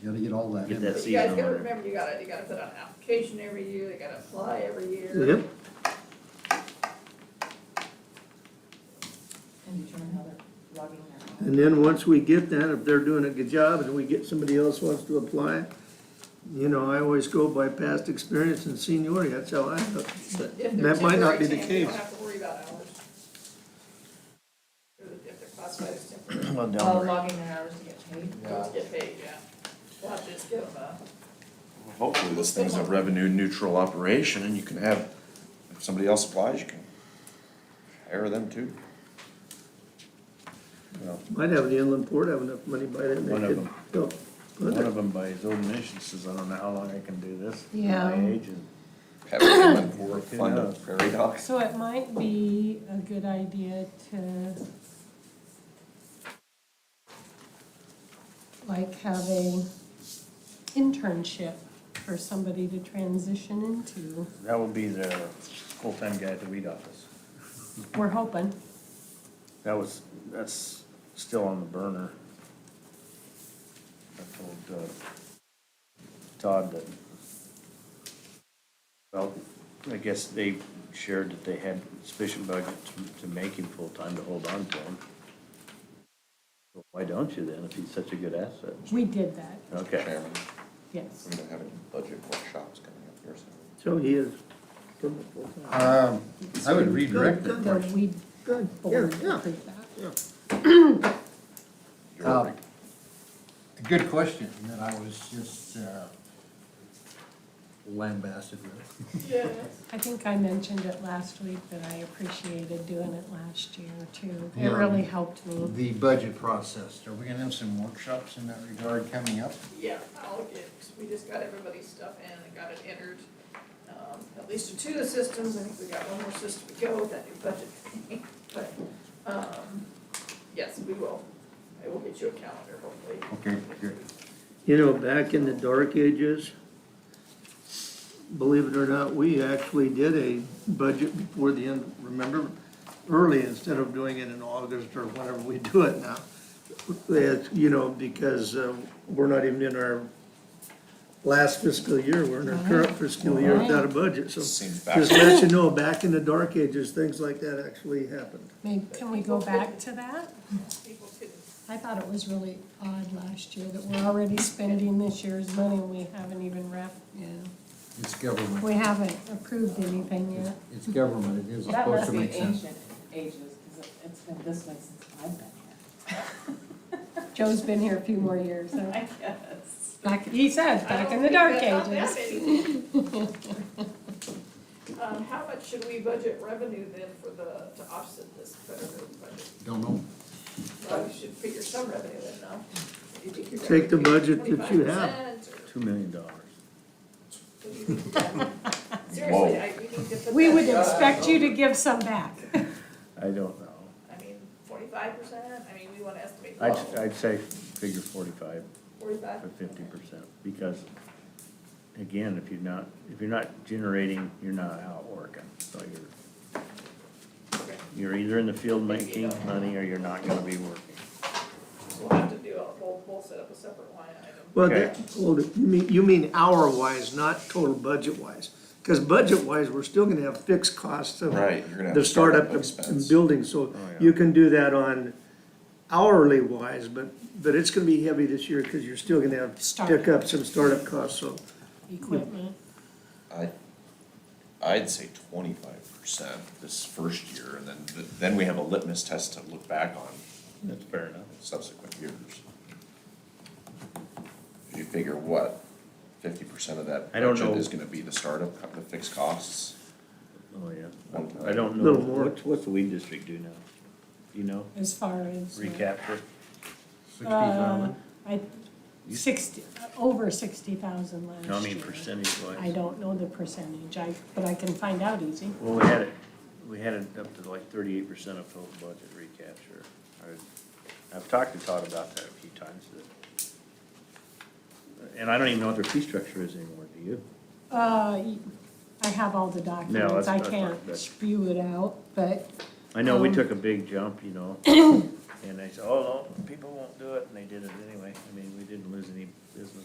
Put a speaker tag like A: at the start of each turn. A: You gotta get all that
B: Get
A: in.
B: that
A: there.
C: But
B: seed
C: you guys
B: on
C: gotta
B: there.
C: remember, you gotta, you gotta put out an application every year, they gotta apply every year.
D: Yep.
E: and determine how they're logging their
D: And then once we get that, if they're doing a good job and we get somebody else wants to apply, you know, I always go by past experience and seniority, that's how I look. But
C: If they're
D: That might not be the
C: temporary temp, you
D: case.
C: don't have to worry about hours. If they're classified as temporary,
B: Well, down
E: Oh,
B: there.
E: logging their hours to get paid?
C: they'll get paid, yeah. We'll have to just give them a.
F: Hopefully, this thing's a revenue neutral operation and you can have, if somebody else applies, you can hire them too. Well,
D: Might have the inland port have enough money by then. they
B: One of
D: could
B: them.
D: go put
B: One
D: it.
B: of them by his own admission says, I don't know how long I can do this. at
G: Yeah.
B: My age and
F: Have them in for a
B: Who
F: fund
B: knows?
F: of prairie dogs.
G: So it might be a good idea to like have a internship for somebody to transition into.
B: that will be their full-time guy at the weed office.
G: We're hoping.
B: That was, that's still on the burner. I told uh, Todd that, well, I guess they shared that they had sufficient budget to- to make him full-time to hold on to him. Well, Why don't you then, if he's such a good asset?
G: We did that,
B: Okay.
F: Chairman,
G: yes.
F: we don't have any budget workshops coming up here soon.
D: So he is. Good,
A: Um, I would redirect it.
G: The weed
D: yeah,
G: board
D: yeah,
G: approved that.
D: yeah.
F: You're
A: Um,
F: right.
A: A good question that I was just, uh, lambasted with.
C: Yes.
G: I think I mentioned it last week that I appreciated doing it last year too.
A: Yeah.
G: It really helped me.
A: The budget process, are we gonna have some workshops in that regard coming up?
C: Yeah, I'll get, we just got everybody's stuff in and got it entered. Um, At least in two of the systems, I think we got one more system to go with that new budget thing, but, um, yes, we will. I will get you a calendar hopefully.
A: Okay, good.
D: You know, back in the dark ages, believe it or not, we actually did a budget before the end, remember? Early, instead of doing it in August or whenever we do it now. That's, you know, because uh, we're not even in our last fiscal year, we're in our current fiscal year without a budget, so.
F: Seems
D: Just let you know, back in the dark ages, things like that actually happened.
G: Maybe, can we go back to that?
C: People could,
G: I thought it was really odd last year that we're already spending this year's money and we haven't even wrapped, yeah.
A: It's
G: We
A: government,
G: haven't approved anything yet.
A: it's government, it is
E: That
A: supposed
E: must
A: to
E: be
A: make sense.
E: ancient ages, because it's been this way since I've been here.
G: Joe's been here a few more years, so,
E: I guess.
G: back, he says,
C: I
G: back
C: don't
G: in the dark
C: think that's not
G: ages.
C: that many. Um, how much should we budget revenue then for the, to offset this federal budget?
A: Don't know.
C: Well, we should figure some revenue in now. Do you think you're
D: Take the
C: gonna figure
D: budget that you have.
C: 25% or-
B: Two million dollars.
C: Seriously, I, we need to put
G: We
C: that-
G: would expect you to give some back.
B: I don't know.
C: I mean, forty-five percent, I mean, we wanna estimate the
B: I'd,
C: level,
B: I'd say figure forty-five
C: forty-five?
B: or fifty percent, because again, if you're not, if you're not generating, you're not out working, so you're,
C: Okay,
B: you're either in the field making money or you're not gonna be working.
C: so We'll have to do a, we'll, we'll set up a separate line item.
D: Well, that, hold it, you mean, you mean hour-wise, not total budget-wise? Because budget-wise, we're still gonna have fixed costs of
F: Right, you're gonna have
D: the
F: to start
D: startup
F: up
D: of
F: expense. Oh,
D: of building, so you can do that on hourly-wise, but, but it's gonna be heavy this year, because you're still gonna have to
G: Startup.
D: pick up some startup costs, so.
G: Equipment.
F: I, I'd say twenty-five percent this first year, and then, then we have a litmus test to look back on
B: That's fair enough.
F: subsequent years. You figure what, fifty percent of that
B: I don't
F: budget
B: know.
F: is gonna be the startup, co- the fixed costs?
B: Oh, yeah.
F: One-
B: I don't know.
D: Little more.
B: What's, what's the weed district do now? Do you know?
G: as far as. uh,
B: Recapture?
A: Sixty
G: Uh,
A: thousand?
G: I, sixty, over sixty thousand last year.
B: I mean, percentage wise.
G: I don't know the percentage, I, but I can find out easy.
B: Well, we had it, we had it up to like thirty-eight percent of total budget recapture. I- I've talked to Todd about that a few times. that- And I don't even know what their fee structure is anymore, do you?
G: Uh, y- I have all the documents,
B: that's-
G: I
B: that's fine,
G: can't
B: that's-
G: spew it out, but,
B: I know we
G: Um,
B: took a big jump, you know, and they said, oh, no, people won't do it, and they did it anyway. I mean, we didn't lose any business